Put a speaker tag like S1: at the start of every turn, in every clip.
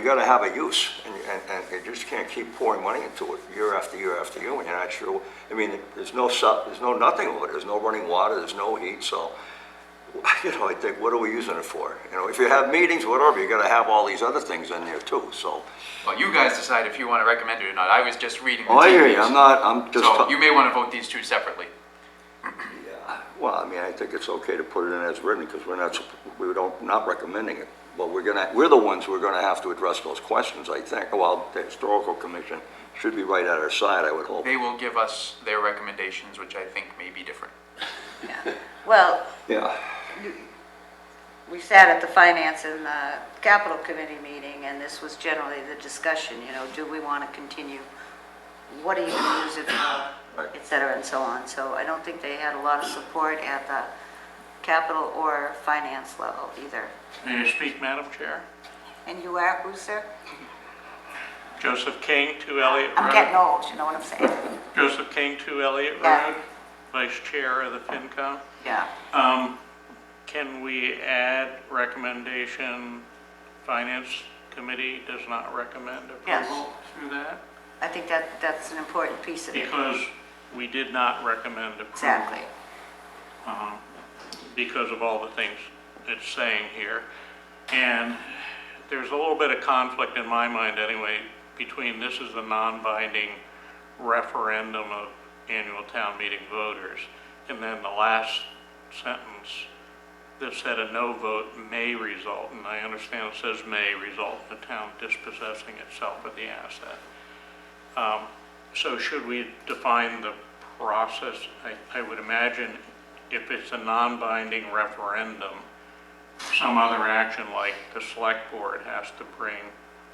S1: gotta have a use, and, and, and you just can't keep pouring money into it year after year after year, when you're not sure, I mean, there's no su, there's no nothing over it, there's no running water, there's no heat, so, you know, I think, what are we using it for? You know, if you have meetings, whatever, you gotta have all these other things in there too, so.
S2: Well, you guys decide if you want to recommend it or not. I was just reading. the
S1: Oh, I hear
S2: tea
S1: you,
S2: leaves.
S1: I'm not, I'm just.
S2: So you may want to vote these two separately.
S1: Well, I mean, I think it's okay to put it in as written, because we're not, we don't, not recommending it. But we're gonna, we're the ones who are gonna have to address those questions, I think. Well, the historical commission should be right at our side, I would hope.
S2: They will give us their recommendations, which I think may be different.
S3: Well,
S1: Yeah,
S3: we sat at the Finance and the Capital Committee meeting, and this was generally the discussion, you know, do we want to continue? What are you going to use it for,
S1: Right.
S3: et cetera, and so on. So I don't think they had a lot of support at the capital or finance level either.
S4: May I speak, Madam Chair?
S3: And you are who, sir?
S4: Joseph King, 2 Elliott
S3: I'm getting
S4: Road.
S3: old, you know what I'm saying?
S4: Joseph King, 2 Elliott
S3: Yeah.
S4: Road, Vice Chair of the FinCom.
S3: Yeah.
S4: Um, Can we add recommendation, Finance Committee does not recommend
S3: Yes.
S4: approval through that?
S3: I think that, that's an important piece of it.
S4: Because we did not recommend approval.
S3: Exactly.
S4: because of all the things it's saying here. And there's a little bit of conflict in my mind anyway, between this is a non-binding referendum of annual town meeting voters, and then the last sentence that said a no vote may result, and I understand it says may result in the town dispossessing itself of the asset. Um, So should we define the process? I, I would imagine if it's a non-binding referendum, some other action like the select board has to bring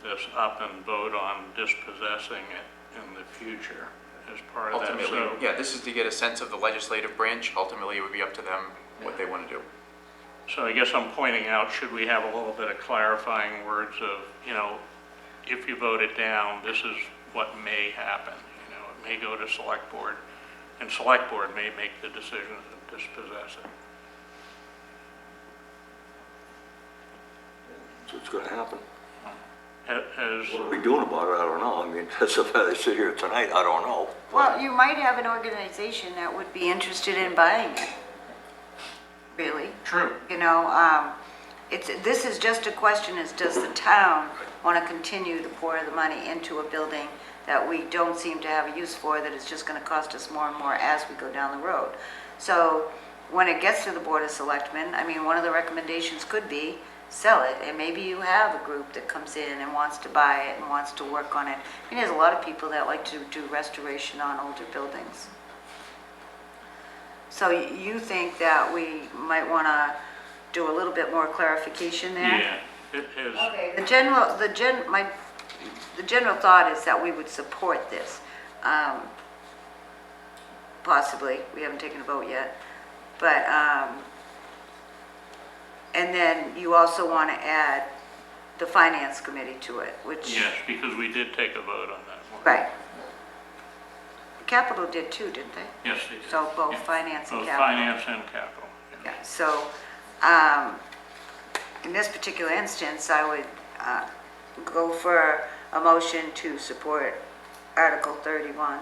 S4: this up and vote on dispossessing it in the future as part of that.
S2: Ultimately,
S4: So-
S2: yeah, this is to get a sense of the legislative branch. Ultimately, it would be up to them what they want to do.
S4: So I guess I'm pointing out, should we have a little bit of clarifying words of, you know, if you vote it down, this is what may happen. You know, it may go to select board, and select board may make the decision to dispossess it.
S1: that's what's gonna happen.
S4: Ha-
S1: What
S4: Has,
S1: are we doing about it? I don't know. I mean, that's if I sit here tonight, I don't know.
S3: Well, you might have an organization that would be interested in buying it, really.
S4: true,
S3: You know, um, it's, this is just a question is, does the town want to continue to pour the money into a building that we don't seem to have a use for, that is just going to cost us more and more as we go down the road? So when it gets to the Board of Selectmen, I mean, one of the recommendations could be sell it, and maybe you have a group that comes in and wants to buy it and wants to work on it. And there's a lot of people that like to do restoration on older buildings. So y- you think that we might want to do a little bit more clarification there?
S4: yeah, it has,
S3: Okay, the general, the gen, my, the general thought is that we would support this. um, Possibly, we haven't taken a vote yet, but, um, and then you also want to add the finance committee to it, which.
S4: yes, because we did take a vote on that one.
S3: Right. Capital did too, didn't they?
S4: Yes, they did.
S3: So both
S4: Yeah.
S3: finance and
S4: Both
S3: capital.
S4: finance and capital. yeah.
S3: Yeah, so, um, in this particular instance, I would, uh, go for a motion to support Article thirty-one,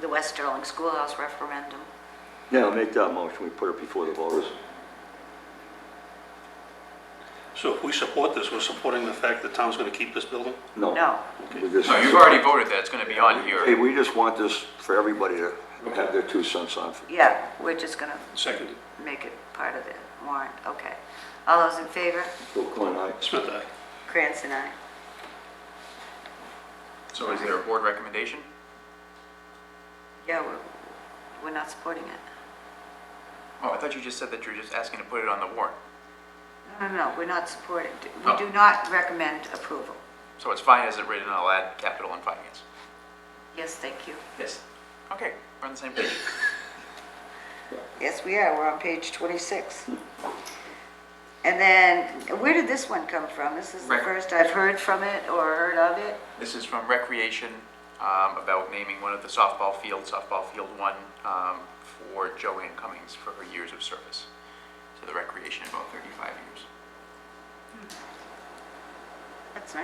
S3: the West Sterling Schoolhouse referendum.
S1: Yeah, make that motion. We put it before the voters.
S5: So if we support this, we're supporting the fact that town's gonna keep this building?
S1: No.
S3: No.
S1: We just-
S2: No, you've already voted that. It's going to be on
S1: Hey,
S2: here.
S1: we just want this for everybody to have their two cents on.
S3: Yeah, we're just gonna
S5: Seconded.
S3: make it part of the warrant, okay. All those in favor?
S1: Bill Klein, aye.
S5: Smith, aye.
S3: Krantz and I.
S2: So is there a board recommendation?
S3: Yeah, we're, we're not supporting it.
S2: Oh, I thought you just said that you were just asking to put it on the warrant.
S3: No, no, no, we're not supporting.
S2: Oh.
S3: We do not recommend approval.
S2: So it's fine as it written, I'll add capital and finance.
S3: Yes, thank you.
S2: Yes. Okay, we're on the same page.
S3: Yes, we are, we're on page 26. And then, where did this one come from? This is the
S2: Right.
S3: first I've heard from it or heard of it?
S2: This is from Recreation um, about naming one of the softball fields, softball field one, um, for Joanne Cummings for her years of service to the recreation, about 35 years.
S3: That's nice.